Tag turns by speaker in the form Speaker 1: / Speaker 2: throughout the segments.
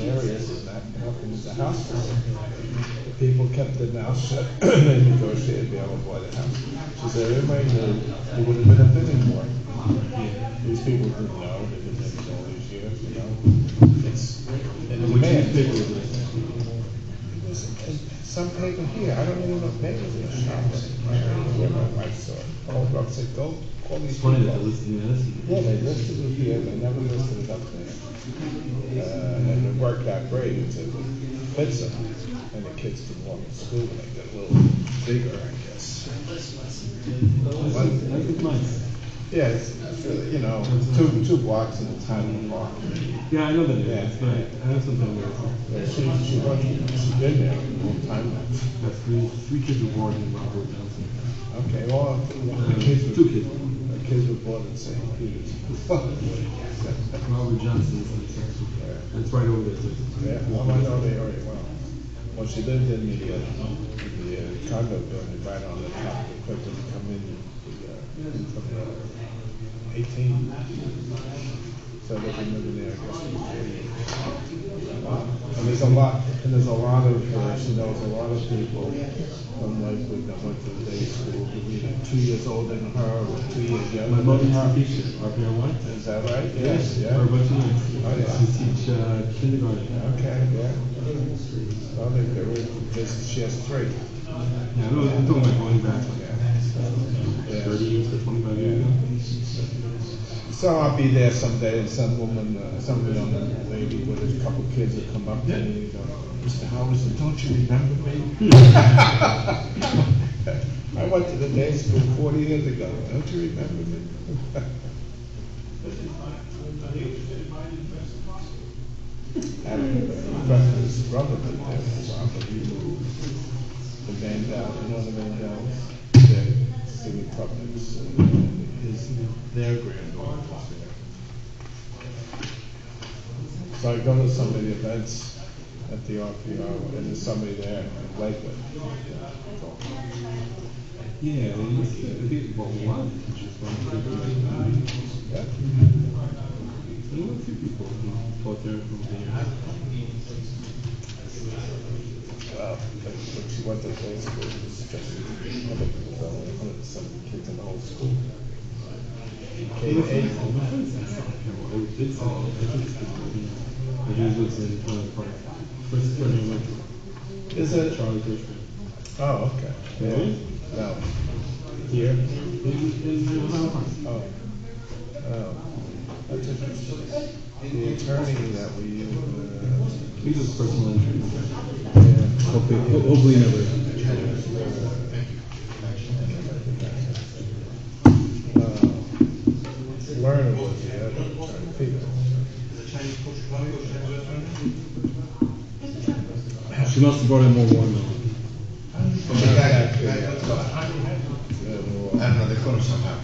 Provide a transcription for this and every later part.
Speaker 1: areas and that happened to the house. The people kept it now, so they negotiated to be able to buy the house. She said, everybody knew, it wouldn't have been a thing anymore. These people didn't know, they didn't have all these years, you know. It's,
Speaker 2: And which
Speaker 1: Man.
Speaker 2: is bigger than,
Speaker 1: there's some paper here, I don't even know if papers in the shop. Where my wife saw it, called up, said, go, call these
Speaker 2: it's
Speaker 1: people.
Speaker 2: funny that the
Speaker 1: up."
Speaker 2: listing is.
Speaker 1: Yeah, they listed it here, they never listed it up there. Uh, and it worked out great until we fit some, and the kids could walk to school and they got a little bigger, I guess.
Speaker 2: I think mine's.
Speaker 1: Yeah, it's, it's really, you know, two, two blocks at a time apart.
Speaker 2: Yeah, I know that it
Speaker 1: Yeah.
Speaker 2: is, but I have something where it's like,
Speaker 1: Yeah, She, she wasn't, she's been there a long time now.
Speaker 2: that's three, three kids were born in Robert Johnson.
Speaker 1: Okay, well,
Speaker 2: Uh,
Speaker 1: the kids were.
Speaker 2: two kids.
Speaker 1: The kids were born in St. Peter's.
Speaker 2: Robert Johnson is in Texas.
Speaker 1: Yeah.
Speaker 2: It's right over there, so. it's-
Speaker 1: Yeah, well, I know the area well. Well, she lived in the, uh, the uh, condo building right on the top, the quick to come in, the, uh, from the eighteen. So they've been living there, I guess, for forty years. Wow. And there's a lot, and there's a lot of, uh, she knows a lot of people from Lakewood that went to the day school, who were either two years older than her or two years
Speaker 2: My
Speaker 1: younger than
Speaker 2: mother's a
Speaker 1: her.
Speaker 2: teacher, RPR one.
Speaker 1: Is that right? Yes,
Speaker 2: Yes,
Speaker 1: yeah.
Speaker 2: for a bunch of years.
Speaker 1: Oh, yeah.
Speaker 2: She teach uh, kindergarten.
Speaker 1: Okay, yeah. I think there were, this, she has three.
Speaker 2: Yeah, no, I'm talking about going back like
Speaker 1: Yeah.
Speaker 2: thirty years to twenty-five years ago.
Speaker 1: So I'll be there someday and some woman, uh, some young lady with a couple kids will come up to me and go, Mr. Howison, don't you remember me? I went to the day school forty years ago. Don't you remember me? And his brother did that, so he moved. the Van Dal, you know the Van Dals? They're singing puppets, and uh, his, their granddaughter was there. So I go to some of the events at the RPO, and there's somebody there in Lakewood.
Speaker 2: Yeah, well, you see, I think, well, one, which is one uh, of the people.
Speaker 1: Yeah,
Speaker 2: There were a few people who fought there over the years.
Speaker 1: well, like, when she went to day school, it was just, I think, it was only 107 kids in the whole school. K eight,
Speaker 2: Well, my friends in South Carolina, or did South Carolina, I think it's been, I think it was in Highland Park. First, when I went to.
Speaker 1: Is it-
Speaker 2: Charlie Gershman.
Speaker 1: oh, okay. Yeah.
Speaker 2: Really?
Speaker 1: No,
Speaker 2: Here? In, in Highland Park.
Speaker 1: Oh, oh, that's interesting. The attorney that we, uh,
Speaker 2: He was personal injury.
Speaker 1: yeah,
Speaker 2: Hopefully, hopefully never.
Speaker 1: uh, Lerner was the other attorney, Peter.
Speaker 2: She must have brought in more watermelon.
Speaker 1: Yeah,
Speaker 3: I
Speaker 1: well,
Speaker 3: don't know, they caught him somehow.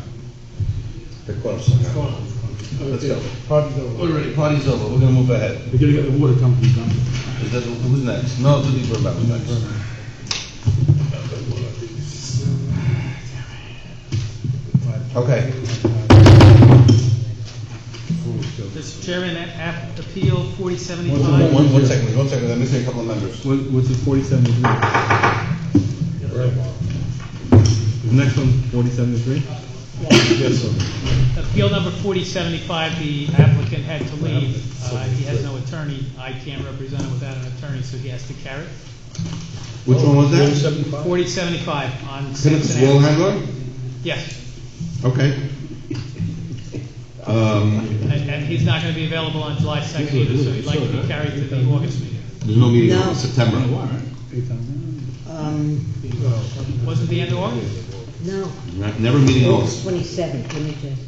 Speaker 3: They caught him somehow. Let's go.
Speaker 1: Hard to go.
Speaker 3: Already, party's over, we're gonna move ahead.
Speaker 2: We're gonna get the water company done.
Speaker 3: Is that, who's next? No, Judy Burbank was next. Okay.
Speaker 4: Mr. Chairman, a- app- appeal forty
Speaker 3: One,
Speaker 4: seventy-five.
Speaker 3: one- one second, one second, I'm missing a couple of members.
Speaker 2: What, what's the forty-seven degree? The next one, forty-seven degree?
Speaker 1: Yes, sir.
Speaker 4: Appeal number forty seventy-five, the applicant had to leave. Uh, he has no attorney. I can't represent him without an attorney, so he has to carry.
Speaker 3: Which one was that?
Speaker 4: Forty seventy-five on
Speaker 3: Phillips
Speaker 4: Sampson
Speaker 3: Wall
Speaker 4: Ave.
Speaker 3: Handler?
Speaker 4: Yes,
Speaker 3: Okay. Um,
Speaker 4: and, and he's not gonna be available on July second either, so he'd like to be carried to the August meeting.
Speaker 3: there's no meeting
Speaker 5: No.
Speaker 3: in September.
Speaker 5: Um,
Speaker 4: Wasn't the end of August?
Speaker 5: no,
Speaker 3: Not- Never meeting in August.
Speaker 5: twenty-seventh, let me just.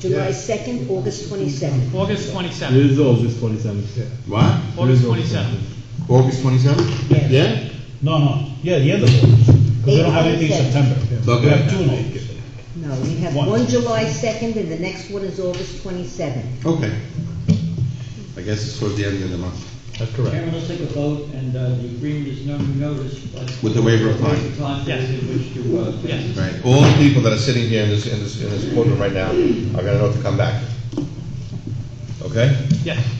Speaker 5: July second, August twenty-seventh.
Speaker 4: August
Speaker 2: It
Speaker 4: twenty-seventh,
Speaker 2: is all just forty-seven.
Speaker 3: What?
Speaker 4: August twenty-seventh.
Speaker 3: August twenty-seventh?
Speaker 5: Yes.
Speaker 3: Yeah?
Speaker 6: No, no, yeah, the end of August, because we don't have anything in September. We have two
Speaker 3: Okay,
Speaker 6: in August.
Speaker 5: No, we have
Speaker 6: One.
Speaker 5: one July second, and the next one is August twenty-seventh.
Speaker 3: okay. I guess it's towards the end of the month.
Speaker 6: That's correct.
Speaker 7: Chairman, let's take a vote, and uh, the agreement is not noticed, but.
Speaker 3: With the waiver of time.
Speaker 7: Waiver time
Speaker 4: Yes.
Speaker 7: period in which to, uh,
Speaker 4: Yes.
Speaker 3: Right, all the people that are sitting here in this, in this, in this courtroom right now are gonna know to come back. Okay?
Speaker 4: Yes.